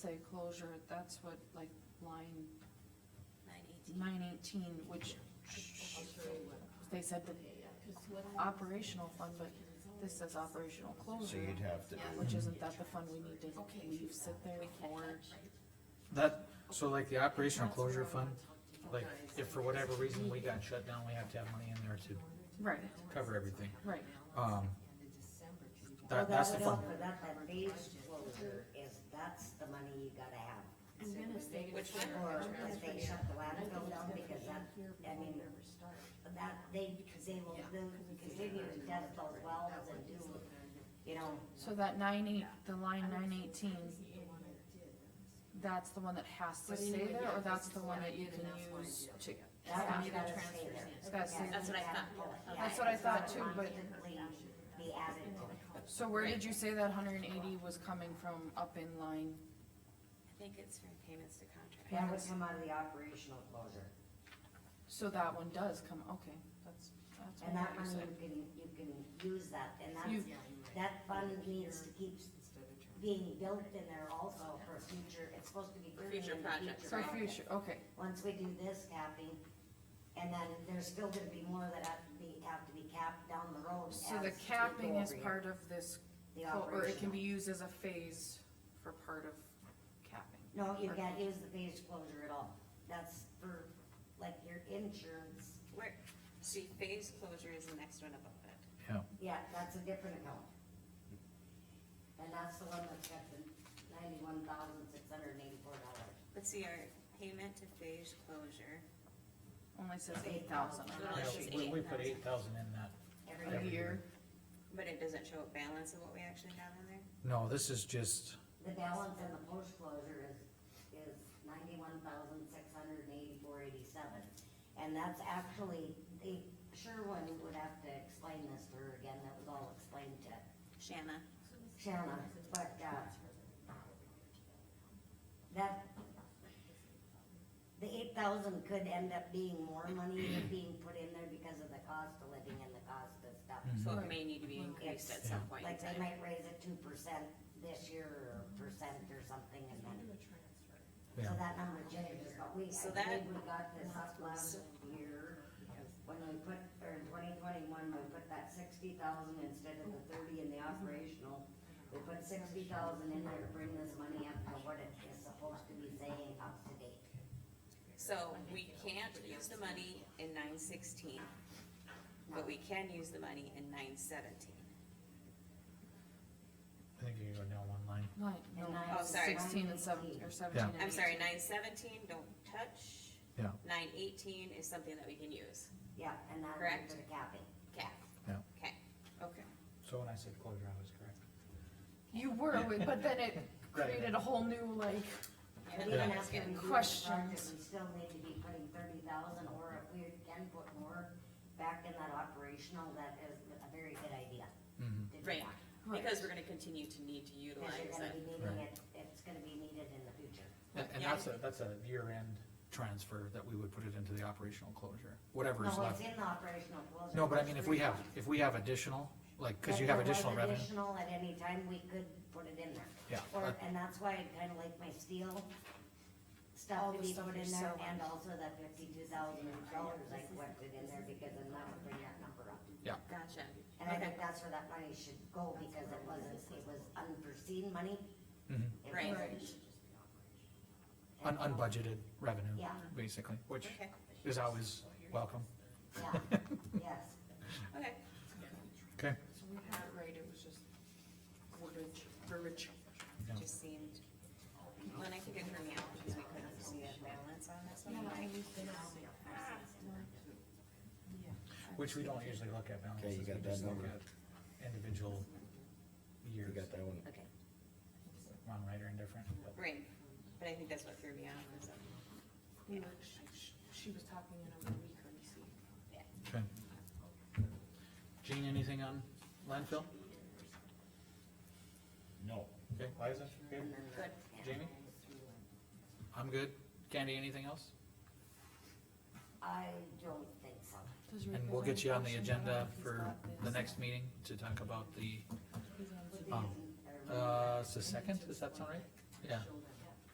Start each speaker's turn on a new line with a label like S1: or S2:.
S1: say closure, that's what, like, line
S2: nine eighteen.
S1: nine eighteen, which they said the operational fund, but this says operational
S3: So
S1: closure,
S3: you'd have to,
S2: Yeah.
S1: which isn't that the fund we need to leave sit there
S2: We can't
S1: for?
S2: touch.
S4: That, so like the operational closure fund, like if for whatever reason we got shut down, we have to have money in there to
S1: Right,
S4: cover everything.
S1: right,
S4: Um,
S5: Well,
S4: that, that's the
S5: would
S4: fund.
S5: help with That, that phase closure is, that's the money you gotta have.
S6: I'm gonna say.
S2: Which one?
S5: Or if they shut the landfill down, because that, I mean, that, they, they will, do- because they need to test those wells and do, you know,
S1: so that nine eight, the line nine eighteen, that's the one that has to stay there, or that's the one that you can use to?
S5: that one's
S2: Yeah.
S5: gotta stay there.
S1: That's the-
S2: That's what I thought.
S5: Yeah,
S1: That's what I
S5: it's gotta
S1: thought too, but-
S5: constantly Be added to it.
S1: So where did you say that hundred and eighty was coming from up in line?
S2: I think it's from payments to contract.
S5: That would come out of the operational closure,
S1: So that one does come, okay, that's, that's
S5: and
S1: what
S5: that
S1: you
S5: money
S1: said.
S5: you can, you can use that, and that's,
S1: You-
S5: that fund needs to keep being built in there also for future, it's supposed to be. bringing
S2: Future
S5: in
S2: projects,
S1: So future, okay,
S5: Once we do this capping, and then there's still gonna be more that have to be, have to be capped down the road.
S1: so
S5: as
S1: the
S5: we go
S1: capping is
S5: over here.
S1: part of this,
S5: The
S1: co- or it can
S5: operational.
S1: be used as a phase for part of capping.
S5: No, you
S1: or-
S5: can't use the phase closure at all, that's for, like, your insurance,
S2: Where, see, phase closure is the next one above it.
S4: Yeah,
S5: yeah, that's a different account. And that's the one that's got the ninety-one thousand six hundred and eighty-four dollars.
S2: Let's see, our payment to phase closure.
S1: Only says eight thousand on
S2: Oh,
S4: yeah,
S1: that
S2: it's
S1: sheet,
S4: we, we put
S2: 8,000.
S4: eight thousand in that.
S1: a
S4: Yeah.
S1: year,
S2: But it doesn't show a balance of what we actually have in there?
S4: No, this is just,
S5: The balance in the post closure is, is ninety-one thousand six hundred and eighty-four eighty-seven. And that's actually, the Sherwin would have to explain this to her again, that was all explained to
S2: Shanna,
S5: Shanna, but, uh, that, the eight thousand could end up being more money than being put in there because of the cost of living and the cost of stuff.
S2: so it may need to be increased at some point in
S5: Like they
S2: time.
S5: might raise it two percent this year or percent or something and then. So
S4: yeah,
S5: that number changes, but we,
S2: So
S5: I
S2: that-
S5: think we got this up last year. When we put, or in twenty twenty-one, we put that sixty thousand instead of the thirty in the operational. We put sixty thousand in there to bring this money up to what it is supposed to be saying up to date.
S2: So we can't use the money in nine sixteen, but we can use the money in nine seventeen.
S4: I think you can go down one line.
S1: Like, no,
S5: And
S2: Oh, sorry.
S1: sixteen and seventeen, or seventeen and
S2: I'm sorry,
S1: 18.
S2: nine seventeen, don't touch.
S4: Yeah.
S2: Nine eighteen is something that we can use.
S5: Yeah, and that
S2: Correct.
S5: for the capping.
S2: Cap.
S4: Yeah.
S2: Okay. Okay.
S4: So when I said closure, I was correct.
S1: You were, with- but then it created a whole new like,
S5: But
S2: Yeah.
S5: even after we do the
S1: Questions.
S5: budget, we still need to be putting thirty thousand, or if we can put more back in that operational, that is a very good idea. to do
S2: Right.
S5: that.
S2: Because we're gonna continue to need to utilize
S5: Cause you're gonna be
S2: it.
S5: needing it, it's gonna be needed in the future.
S4: And, and
S2: Yeah.
S4: that's a, that's a year-end transfer that we would put it into the operational closure, whatever is
S5: No, it's
S4: left.
S5: in the operational closure.
S4: No, but I mean, if we have,
S5: If
S4: if we have additional, like, cause you
S5: there
S4: have
S5: was
S4: additional revenue.
S5: Additional at any time, we could put it in there.
S4: Yeah,
S5: Or,
S4: that-
S5: and that's why I kinda like my steel stuff
S1: All
S5: to
S1: the
S5: be
S1: stuff
S5: put
S1: you're
S5: in there,
S1: selling.
S5: and also that fifty-two thousand dollars I collected in there, because then that would bring that number up.
S2: Gotcha.
S5: And I
S2: Okay.
S5: think that's where that money should go, because it wasn't, it was unforeseen money.
S4: Mhm.
S5: It
S2: Right.
S5: wasn't-
S4: Un- unbudgeted revenue,
S5: Yeah.
S4: basically, which
S2: Okay.
S4: is always welcome.
S5: Yeah, yes.
S2: Okay.
S4: Okay.
S1: So we had it right, it was just wordage, verbiage.
S2: Just seemed, when I could get her now, because we couldn't see a balance on this one.
S4: Which we don't usually look at balances.
S3: Okay, you got
S4: we
S3: that
S4: just look
S3: number.
S4: at Individual
S3: you
S4: years,
S3: got that one,
S2: Okay.
S4: wrong, right, or indifferent. but-
S2: Right. But I think that's what threw me off was that.
S1: We were- she- She was talking in a we couldn't see.
S4: Okay. Gene, anything on landfill?
S3: no.
S4: Okay, Liza, good?
S2: Good.
S4: Jamie? I'm good. Candy, anything else?
S5: I don't think so.
S1: Does
S4: And
S1: Rick
S4: we'll
S1: have
S4: get
S1: any
S4: you on the
S1: questions? I don't know
S4: agenda
S1: if he's
S4: for
S1: got this.
S4: the next meeting to talk about the,
S1: He's on Zoom.
S4: uh, um, uh, it's the second, does that sound right? Yeah,